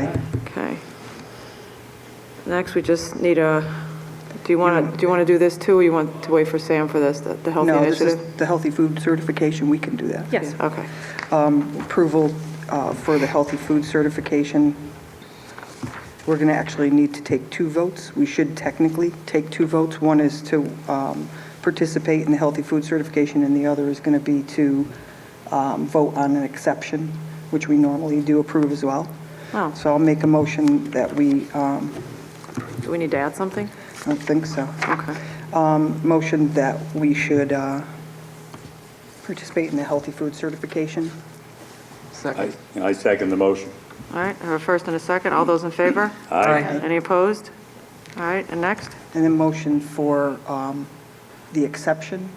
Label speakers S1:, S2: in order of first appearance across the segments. S1: Okay. Next, we just need a, do you want to, do you want to do this too, or you want to wait for Sam for this, the the healthy
S2: No, this
S1: initiative?
S2: is the healthy food certification, we can do that.
S3: Yes.
S1: Okay.
S2: Um, Approval uh, for the healthy food certification. We're going to actually need to take two votes. We should technically take two votes. One is to um, participate in the healthy food certification, and the other is going to be to um, vote on an exception, which we normally do approve as well.
S1: Oh.
S2: So I'll make a motion that we, um,
S1: Do we need to add something?
S2: I don't think so.
S1: Okay.
S2: Um, Motion that we should uh, participate in the healthy food certification.
S4: I I second the motion.
S1: All right, I have a first and a second. All those in favor?
S4: Aye.
S1: Any opposed? All right, and next?
S2: And then motion for um, the exception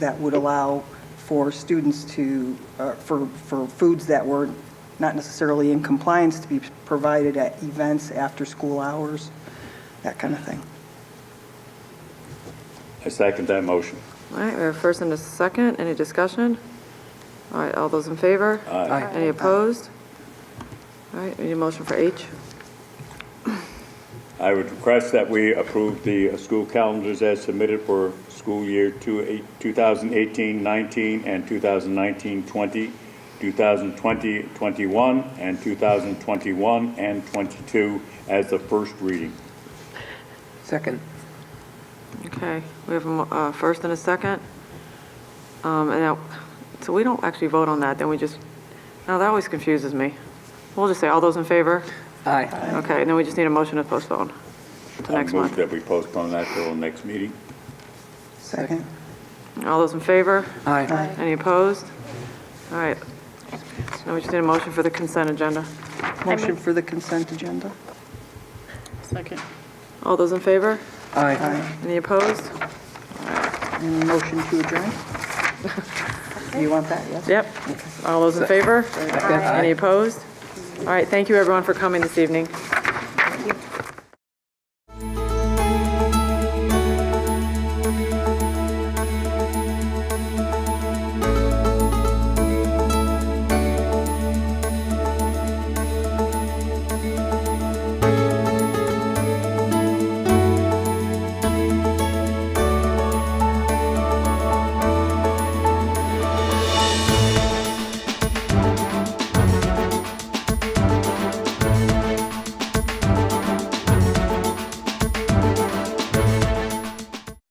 S2: that would allow for students to, uh, for, for foods that were not necessarily in compliance to be provided at events after school hours, that kind of thing.
S4: I second that motion.
S1: All right, we have a first and a second. Any discussion? All right, all those in favor?
S4: Aye.
S1: Any opposed? All right, we need a motion for H.
S4: I would request that we approve the uh, school calendars as submitted for school year two eight- 2018-19 and 2019-20, 2020-21, and 2021 and 22 as the first reading.
S5: Second.
S1: Okay, we have a mo- uh, first and a second. Um, And now, so we don't actually vote on that, then we just, now that always confuses me. We'll just say, all those in favor?
S5: Aye.
S1: Okay, and then we just need a motion to postpone to next
S4: I move
S1: month.
S4: that we postpone that till the next meeting.
S2: Second?
S1: All those in favor?
S5: Aye.
S1: Any opposed? All right. Now we just need a motion for the consent agenda.
S2: Motion for the consent agenda?
S3: Second.
S1: All those in favor?
S5: Aye.
S1: Any opposed?
S2: And motion to adjourn? You want that, yes?
S1: Yep. All those in favor? Any opposed? All right, thank you, everyone, for coming this evening.